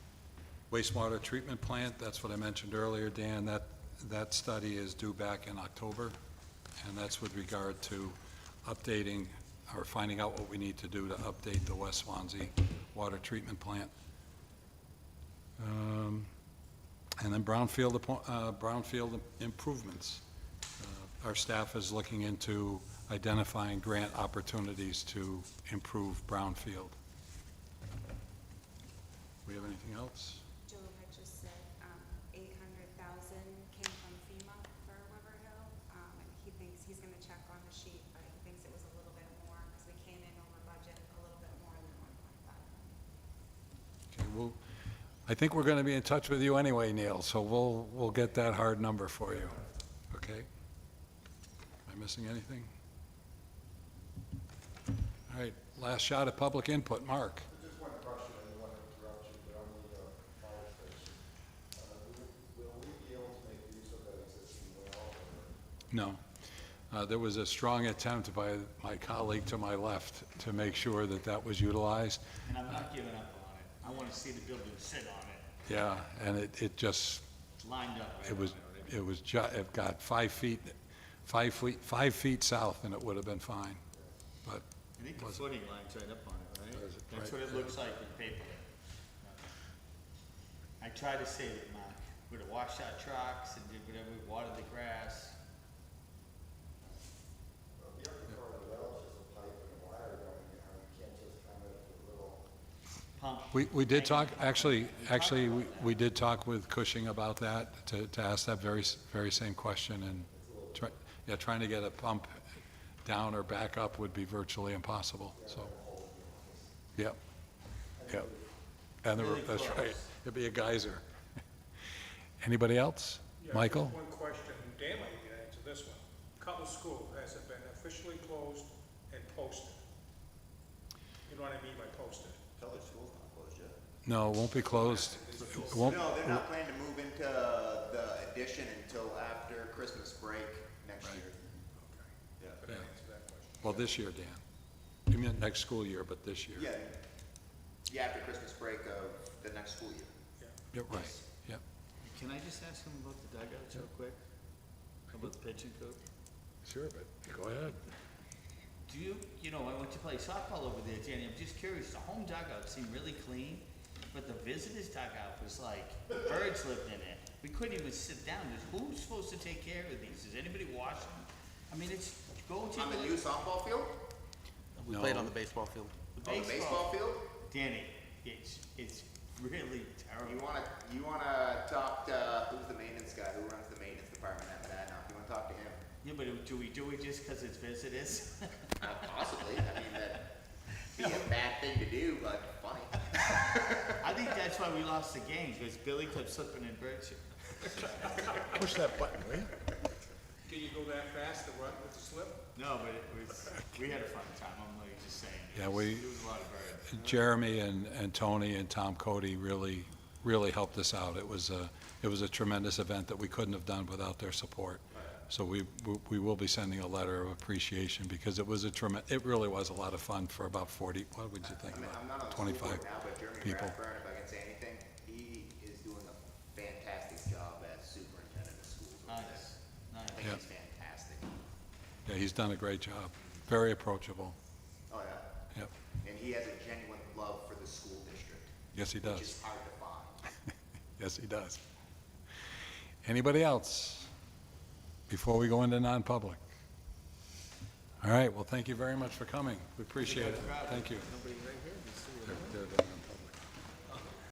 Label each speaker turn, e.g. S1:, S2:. S1: wastewater treatment plant, that's what I mentioned earlier, Dan, that, that study is due back in October, and that's with regard to updating, or finding out what we need to do to update the West Swansea Water Treatment Plant. Um, And then brownfield, appo- uh, brownfield improvements. Uh, Our staff is looking into identifying grant opportunities to improve brownfield. We have anything else?
S2: Joe had just said, um, eight hundred thousand came from FEMA for River Hill. Um, and he thinks, he's gonna check on the sheet, but he thinks it was a little bit more, because we came in over budget a little bit more than one point five.
S1: Okay, well, I think we're going to be in touch with you anyway, Neil, so we'll, we'll get that hard number for you, okay? Am I missing anything? All right, last shot at public input, Mark.
S3: Just one question, and one interruption, but on the uh, fire station. Uh, will- Will we be able to make use of that existing well, or
S1: No. Uh, There was a strong attempt by my colleague to my left to make sure that that was utilized.
S4: And I'm not giving up on it. I want to see the building sit on it.
S1: Yeah, and it, it just,
S4: It's lined up right
S1: it was,
S4: on it.
S1: it was, ju- it got five feet, five feet, five feet south, and it would have been fine. But
S4: I think the footing line's right up on it, right?
S1: Was it
S4: That's
S1: right
S4: what it looks like in paper. I tried to save it, Mark. Would have washed out trucks and did whatever, watered the grass. Pump.
S1: We, we did
S4: Thank
S1: talk,
S4: you.
S1: actually,
S4: We talked
S1: actually,
S4: about
S1: we
S4: that.
S1: we did talk with Cushing about that, to, to ask that very, s- very same question, and, try- yeah, trying to get a pump down or back up would be virtually impossible, so. Yep, yep. And the-
S4: Really
S1: that's
S4: close.
S1: right, it'd be a geyser. Anybody else?
S5: Yeah,
S1: Michael?
S5: just One question, Dan might be able to answer this one. Cutler School, has it been officially closed and posted? You know what I mean by posted?
S6: Cutler School's not closed yet.
S1: No, it won't be closed. It won't-
S6: No, they're not planning to move into the addition until after Christmas break next year.
S5: Could
S1: Yeah.
S5: I answer that question?
S1: Well, this year, Dan. You meant next school year, but this year.
S6: Yeah, yeah, after Christmas break of the next school year.
S1: Yep, right, yep.
S4: Can I just ask him about the dugouts real quick? About the pitching coop?
S1: Sure, but go ahead.
S4: Do you, you know, I went to play softball over there, Danny, I'm just curious, the home dugout seemed really clean, but the visitors dugout was like, birds lived in it. We couldn't even sit down, who's supposed to take care of these, is anybody watching? I mean, it's, go to
S6: On the new
S4: the
S6: softball field?
S7: We played on the baseball field.
S6: On the baseball
S4: baseball.
S6: field?
S4: Danny, it's, it's really
S6: You
S4: terrible.
S6: wanna, you wanna talk to, who's the maintenance guy, who runs the maintenance department at Madnock? You wanna talk to him?
S4: Yeah, but do we do it just because it's visitors?
S6: Uh, Possibly, I mean, that'd be a bad thing to do, but funny.
S4: I think that's why we lost the game, because Billy kept slipping and birds.
S7: Push that button, will you?
S5: Can you go that fast, the run with the slip?
S4: No, but it was, we had a fun time, I'm like just saying. It
S1: Yeah,
S4: was-
S1: we-
S4: It was a lot of birds.
S1: Jeremy and, and Tony and Tom Cody really, really helped us out. It was a, it was a tremendous event that we couldn't have done without their support. So we, we- we will be sending a letter of appreciation because it was a tremen, it really was a lot of fun for about 40, what would you think?
S6: I mean,
S1: about
S6: I'm not on the school
S1: 25
S6: board now, but Jeremy
S1: people.
S6: Rathburn, if I can say anything, he is doing a fantastic job as superintendent of schools over there.
S4: Nice,
S6: I
S4: nice.
S6: think
S1: Yeah.
S6: he's fantastic.
S1: Yeah, he's done a great job. Very approachable.
S6: Oh, yeah.
S1: Yep.
S6: And he has a genuine love for the school district,
S1: Yes, he
S6: which
S1: does.
S6: is hard to find.
S1: Yes, he does. Anybody else before we go into non-public? All right, well, thank you very much for coming. We appreciate it. Thank you. They're- they're doing it.